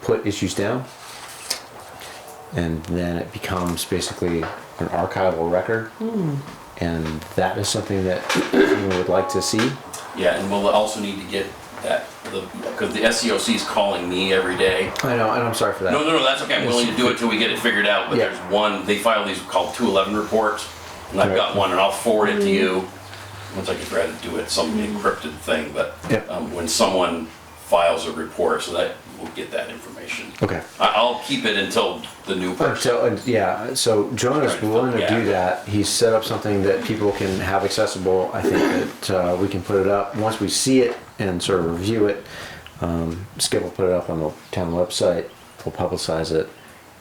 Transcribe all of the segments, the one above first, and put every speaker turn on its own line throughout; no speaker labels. put issues down. And then it becomes basically an archival record. And that is something that you would like to see.
Yeah, and we'll also need to get that, because the SEOC is calling me every day.
I know, and I'm sorry for that.
No, no, no, that's okay, I'm willing to do it till we get it figured out, but
Yeah.
there's one, they file these called two eleven reports, and I've got
Right.
one, and I'll forward it to you. Once I can try to do it, some encrypted thing, but
Yeah.
um, when someone files a report, so that, we'll get that information.
Okay.
I, I'll keep it until the new person.
So, uh, yeah, so Jonah's willing to do that. He's set up something that people can have accessible. I think that uh, we can put it up, once we see it and sort of review it, um, Skip will put it up on the town website, we'll publicize it,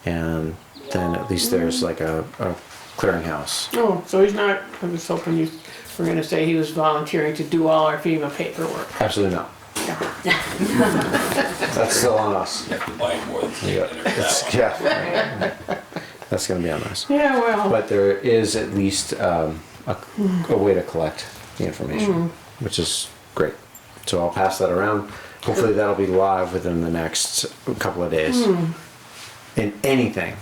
and then at least there's like a, a clearinghouse.
Oh, so he's not, I was hoping you were gonna say he was volunteering to do all our FEMA paperwork.
Absolutely not.
Yeah.
That's still on us.
You have to buy more than
Yeah,
that
It's-
one.
yeah. That's gonna be on us.
Yeah, well,
But there is at least um, a, a way to collect the information, which is great. So I'll pass that around. Hopefully, that'll be live within the next couple of days. And anything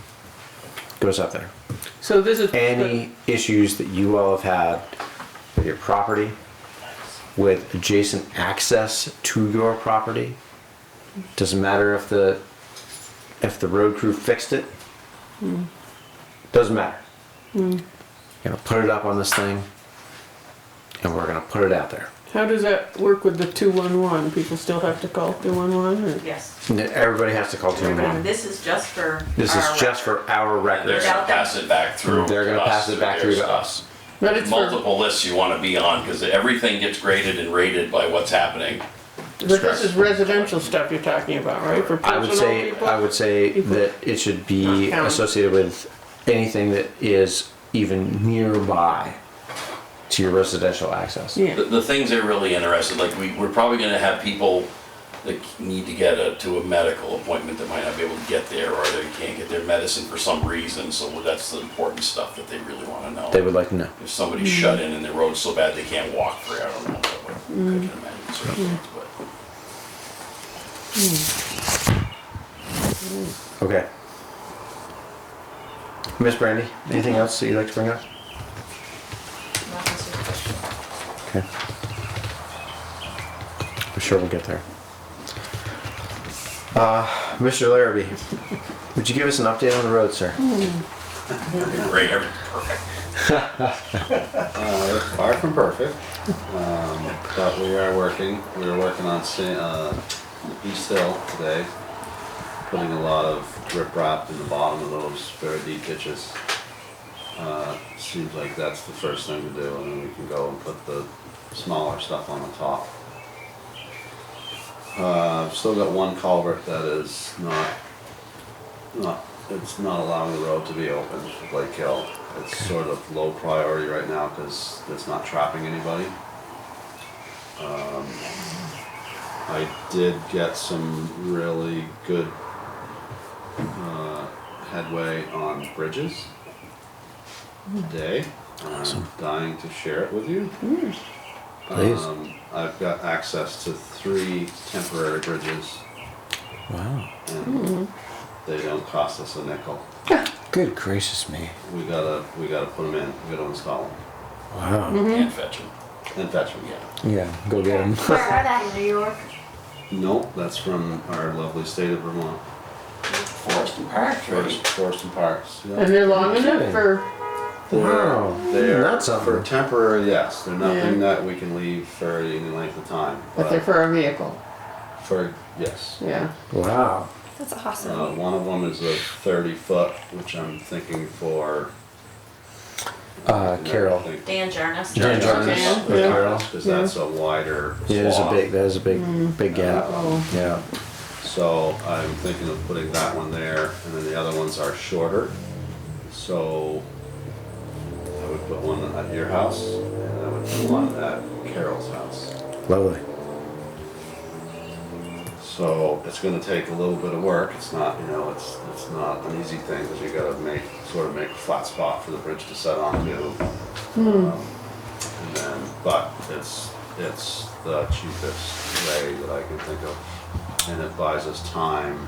goes up there.
so this is.
Any issues that you all have had with your property, with adjacent access to your property, doesn't matter if the if the road crew fixed it. Doesn't matter. Gonna put it up on this thing, and we're gonna put it out there.
How does that work with the two-one-one? People still have to call two-one-one or?
Yes.
And then Everybody has to call two
Everybody-
one.
This is just for.
This is
our
just for our
And They're
records.
gonna pass it back through.
They're gonna
to us,
pass it back
their
through to
stuff.
us.
But it's for,
multiple lists you want to be on because everything gets graded and rated by what's happening.
but this is residential stuff you're talking about, right? For
I would say,
personal people?
I would say
People.
that it should be
Not counting.
associated with anything that is even nearby to your residential access.
The,
Yeah,
the things they're really interested, like we, we're probably going to have people that need to get a, to a medical appointment that might not be able to get there or they can't get their medicine for some reason. So that's the important stuff that they really want to know.
They would like to know.
if somebody's shut in and their road's so bad they can't walk for, it, I don't know, what I can imagine certain things, but.
Okay. Miss Brandy, anything else that you'd like to bring up?
Not this is-
Okay. I'm sure we'll get there. Uh, Mr. Larrabee, would you give us an update on the road, sir?
Great, every- perfect.
Uh, far from perfect, um, but we are working. We were working on Sa- uh, East Hill today, putting a lot of riprap in the bottom of those very deep ditches. Uh, seems like that's the first thing to do, and then we can go and put the smaller stuff on the top. Uh, I've still got one culvert that is not, not, it's not allowing the road to be open, Blake Hill. It's sort of low priority right now because it's not trapping anybody. Um, I did get some really good, uh, headway on bridges today. I'm dying to share it with you.
Please.
Um, I've got access to three temporary bridges,
Wow.
and they don't cost us a nickel.
Good gracious me.
We gotta, we gotta put them in. We gotta install them
Wow.
Mm-hmm.
Can't fetch them,
and fetch them.
yeah.
Yeah, go get him.
Where are they? New York.
Nope, that's from our lovely state of Vermont.
Forest and Park,
Forest, Forest and Parks.
Mm-hmm.
yeah.
and they're long
Okay.
enough for,
They're-
Wow,
They're
Mm, that's
for
something.
temporary. Yes, they're nothing
Yeah.
that we can leave for any length of time.
but they're for our vehicle,
for yes.
yeah.
Wow.
That's awesome.
Uh, one of them is a 30 foot, which I'm thinking for.
Uh, Carol.
Think-
Dan Jarnes.
Dan Jarnes.
Jarnes,
Okay,
yeah.
Carol, Cause that's a wider swath.
Yeah, there's a big, there's a big, big gap.
Uh,
Yeah.
So I'm thinking of putting that one there, and then the other ones are shorter. So I would put one at your house, and I would put one at Carol's house.
Lovely.
So it's gonna take a little bit of work, it's not, you know, it's, it's not an easy thing, because you gotta make, sort of make a flat spot for the bridge to set onto. Um, And then, but it's, it's the cheapest way that I can think of, and it buys us time